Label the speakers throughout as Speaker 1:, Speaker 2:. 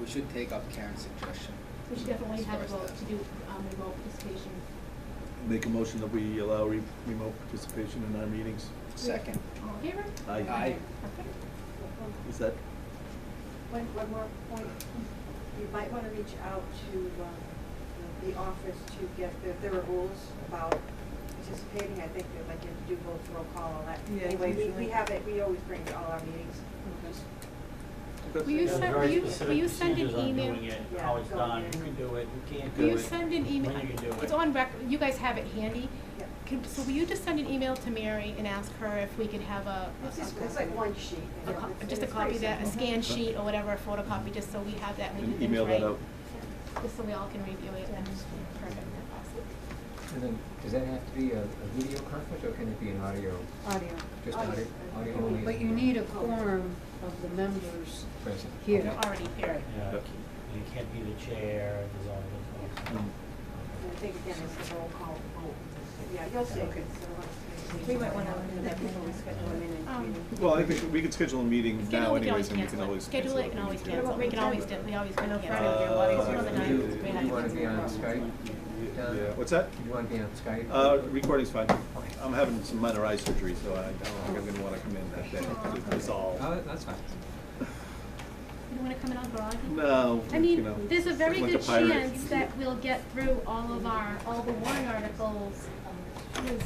Speaker 1: we should take up Karen's suggestion.
Speaker 2: We should definitely
Speaker 1: as
Speaker 2: have
Speaker 1: far
Speaker 2: a
Speaker 1: as
Speaker 2: vote
Speaker 1: that.
Speaker 2: to do um, remote participation.
Speaker 3: Make a motion that we allow re- remote participation in our meetings.
Speaker 1: Second.
Speaker 2: All in favor?
Speaker 3: Aye.
Speaker 1: Aye.
Speaker 2: Perfect.
Speaker 3: Is that,
Speaker 4: One, one more point, you might wanna reach out to, um, you know, the office to get, there, there are rules about participating, I think that like you have to do both roll call, all that.
Speaker 5: Yeah,
Speaker 4: Anyway, we,
Speaker 5: usually.
Speaker 4: we have it, we always bring to all our meetings. Just-
Speaker 3: Okay.
Speaker 2: Will you
Speaker 6: There's
Speaker 2: send, will
Speaker 6: very
Speaker 2: you, will
Speaker 6: specific
Speaker 2: you send an
Speaker 6: procedures on
Speaker 2: email?
Speaker 6: doing it,
Speaker 4: Yeah,
Speaker 6: How it's
Speaker 4: go
Speaker 6: done,
Speaker 4: in.
Speaker 6: who can do it, who can't do
Speaker 2: Will
Speaker 6: it.
Speaker 2: you send an email?
Speaker 6: When you can do it.
Speaker 2: It's on rec, you guys have it handy.
Speaker 4: Yeah.
Speaker 2: Can, so will you just send an email to Mary and ask her if we could have a, a-
Speaker 4: It's just,
Speaker 2: a-
Speaker 4: it's like one sheet.
Speaker 2: a
Speaker 4: you know,
Speaker 2: co-
Speaker 4: it's-
Speaker 2: just a
Speaker 4: it's Uh-huh.
Speaker 2: copy
Speaker 4: pretty
Speaker 2: of that, a
Speaker 4: simple.
Speaker 2: scan sheet or whatever, a photocopy, just so we have that when you
Speaker 3: and email that out?
Speaker 2: Just so we all can review it and, perfect, awesome.
Speaker 7: And then, does that have to be a, a video conference, or can it be an audio,
Speaker 5: Audio.
Speaker 7: just
Speaker 4: Audio.
Speaker 7: audio, audio only?
Speaker 5: But you need a quorum of the members
Speaker 7: Present.
Speaker 5: here.
Speaker 2: They're already here.
Speaker 6: Yeah,
Speaker 3: Yep.
Speaker 6: you can't be the chair, there's all this.
Speaker 3: Mm.
Speaker 4: And I think again, it's the roll call vote. Yeah, you'll see. uh,
Speaker 6: Okay.
Speaker 4: We
Speaker 5: might wanna do that before we schedule a minute.
Speaker 2: Um,
Speaker 3: Well, I think we could schedule a meeting now
Speaker 2: Schedule, we can
Speaker 3: anyways,
Speaker 2: always
Speaker 3: and we can
Speaker 2: cancel it.
Speaker 3: always
Speaker 2: Schedule
Speaker 3: cancel
Speaker 2: it and always cancel it. We can always, do- we always
Speaker 5: I
Speaker 2: can
Speaker 5: know
Speaker 2: cancel.
Speaker 5: Friday would be a lot easier
Speaker 2: One of the nights,
Speaker 5: than
Speaker 7: Do
Speaker 2: we
Speaker 7: you-
Speaker 2: had
Speaker 7: do you
Speaker 2: to
Speaker 7: wanna
Speaker 2: do
Speaker 7: be on
Speaker 2: it.
Speaker 7: Skype? Don?
Speaker 3: Yeah, what's that?
Speaker 7: Do you wanna be on Skype?
Speaker 3: Uh, recording's fine.
Speaker 7: Okay.
Speaker 3: I'm having some minor eye surgery, so I don't think I'm gonna wanna come in that day. It's all.
Speaker 7: Oh, that's fine.
Speaker 2: You don't wanna come in on Veronica?
Speaker 3: No,
Speaker 2: I
Speaker 3: you
Speaker 2: mean,
Speaker 3: know,
Speaker 2: there's a very
Speaker 3: like
Speaker 2: good
Speaker 3: pirate.
Speaker 2: chance that we'll get through all of our, all the warrant articles is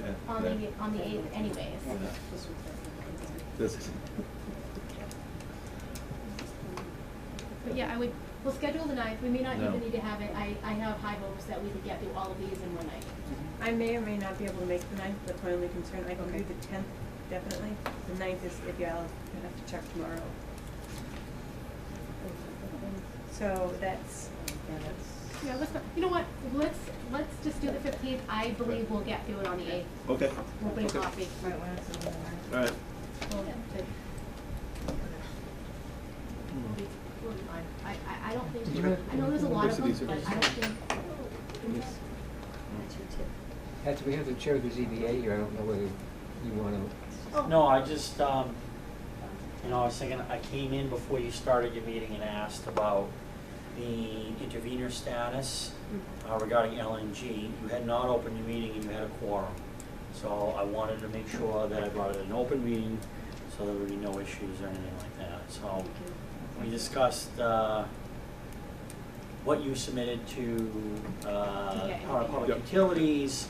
Speaker 3: Yeah,
Speaker 2: on
Speaker 3: yeah.
Speaker 2: the, on the eighth anyways.
Speaker 3: Yeah. This-
Speaker 2: But yeah, I would, we'll schedule the ninth, we may not
Speaker 3: No.
Speaker 2: even need to have it, I, I have high hopes that we could get through all of these in one night.
Speaker 5: I may or may not be able to make the ninth, that's my only concern, I can do
Speaker 4: Okay.
Speaker 5: the tenth, definitely, the ninth is, if y'all, I have to check tomorrow. So that's, yeah, that's,
Speaker 2: Yeah, let's, not- you know what, let's, let's just do the fifteenth, I believe we'll get through it on the eighth,
Speaker 3: Okay,
Speaker 2: we'll bring
Speaker 3: Okay.
Speaker 2: coffee.
Speaker 4: Might wanna do that.
Speaker 3: all right.
Speaker 2: We'll- we'll be fine. I, I, I don't
Speaker 7: Did you
Speaker 2: think,
Speaker 7: have-
Speaker 2: I know there's a lot of them,
Speaker 3: University
Speaker 2: but I don't think.
Speaker 7: That's, we have the chair of the ZBA here, I don't know whether you wanna,
Speaker 2: Oh.
Speaker 6: No, I just, um, you know, I was thinking, I came in before you started your meeting and asked about the intervenor status uh, regarding LNG. You had not opened your meeting and you had a quorum. So I wanted to make sure that I brought it in an open meeting, so there would be no issues or anything like that. So we discussed, uh, what you submitted to, uh,
Speaker 2: Yeah.
Speaker 6: Power Public
Speaker 3: Yep.
Speaker 6: Utilities,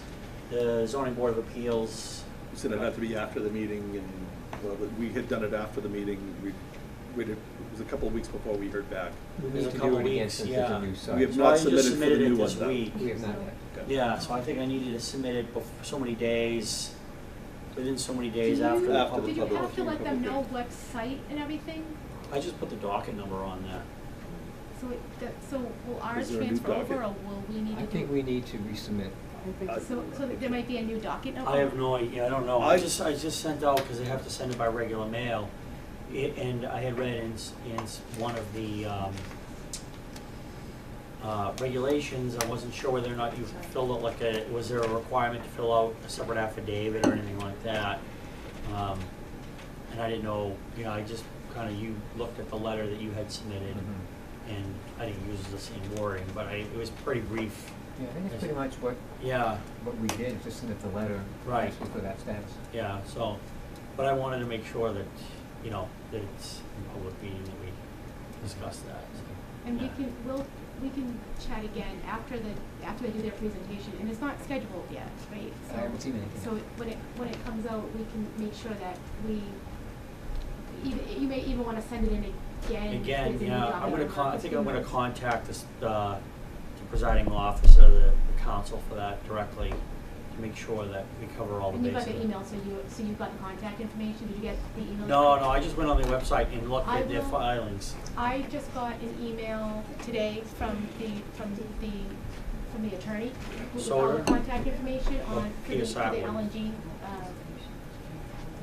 Speaker 6: the zoning board of appeals.
Speaker 3: You said it'd have to be after the meeting and, well, but we had done it after the meeting. We waited, it was a couple of weeks before we heard back.
Speaker 7: we
Speaker 6: There's
Speaker 7: need
Speaker 6: a
Speaker 7: to do
Speaker 6: couple
Speaker 7: it again
Speaker 6: weeks,
Speaker 7: since it's
Speaker 6: yeah.
Speaker 7: a new
Speaker 6: We
Speaker 7: site.
Speaker 3: We have
Speaker 6: So
Speaker 3: not
Speaker 6: I just
Speaker 3: submitted for the
Speaker 6: submitted it
Speaker 3: new one,
Speaker 6: this
Speaker 3: though.
Speaker 6: week.
Speaker 7: We have not yet.
Speaker 3: Okay.
Speaker 6: Yeah, so I think I needed to submit it before so many days, within so many days
Speaker 2: Do
Speaker 6: after
Speaker 2: you-
Speaker 6: the
Speaker 3: After
Speaker 6: public.
Speaker 2: Did you
Speaker 3: public
Speaker 2: have to
Speaker 3: hearing,
Speaker 2: let them
Speaker 3: public
Speaker 2: know
Speaker 3: hearing.
Speaker 2: what site and everything?
Speaker 6: I just put the docket number on there.
Speaker 2: So it, that, so will ours
Speaker 3: Is there a new
Speaker 2: transfer over
Speaker 3: docket?
Speaker 2: or will we need to do?
Speaker 7: I think we need to resubmit.
Speaker 5: I think
Speaker 3: Uh,
Speaker 5: it's.
Speaker 2: So, so that there might be a new docket number?
Speaker 6: I have no idea, I don't know. I
Speaker 3: I-
Speaker 6: just, I just sent out, because they have to send it by regular mail. It, and I had read in, s- in s- one of the, um, uh, regulations, I wasn't sure whether or not you filled out like a, was there a requirement to fill out a separate affidavit or anything like that? Um, and I didn't know, you know, I just kinda, you looked at the letter that you had submitted, and I didn't use the same wording, but I, it was pretty brief.
Speaker 7: Yeah, I think it's pretty much what,
Speaker 6: Yeah,
Speaker 7: what we did, just submit the letter.
Speaker 6: Right.
Speaker 7: asking For that status.
Speaker 6: Yeah, so, but I wanted to make sure that, you know, that it's in public meeting that we discuss that, so.
Speaker 2: And we
Speaker 6: yeah.
Speaker 2: can, we'll, we can chat again after the, after they do their presentation, and it's not scheduled yet, right?
Speaker 7: I haven't seen anything.
Speaker 2: So, so it- when it, when it comes out, we can make sure that we, even, you may even wanna send it in again.
Speaker 6: Again,
Speaker 2: as a new
Speaker 6: yeah, I'm
Speaker 2: document
Speaker 6: gonna
Speaker 2: on
Speaker 6: con, I think I'm gonna
Speaker 2: 15.
Speaker 6: contact this, uh, the presiding officer, the, the council for that directly, to make sure that we cover all the
Speaker 2: And you
Speaker 6: bases.
Speaker 2: got the email, so you, so you've got the contact information, did you get the email?
Speaker 6: No, no, I just went on their website and looked
Speaker 2: I
Speaker 6: at their
Speaker 2: will-
Speaker 6: filings.
Speaker 2: I just got an email today from the, from the, from the attorney with all the
Speaker 6: Solar?
Speaker 2: contact information on, for the, for the
Speaker 6: PSI one.
Speaker 2: LNG, uh,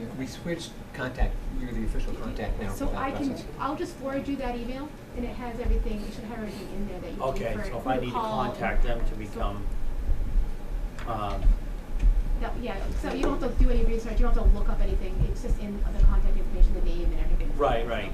Speaker 7: Yeah, We switched contact, you're the official contact now for
Speaker 2: So
Speaker 7: that
Speaker 2: I can,
Speaker 7: process.
Speaker 2: I'll just forward you that email, and it has everything, it should have everything in there that you
Speaker 6: Okay,
Speaker 2: need for,
Speaker 6: so if
Speaker 2: for
Speaker 6: I
Speaker 2: the
Speaker 6: need to
Speaker 2: call and-
Speaker 6: contact them to
Speaker 2: so-
Speaker 6: become, um,
Speaker 2: That, yeah, so you don't have to do any research, you don't have to look up anything, it's just in the contact information, the name and everything.
Speaker 6: right, right,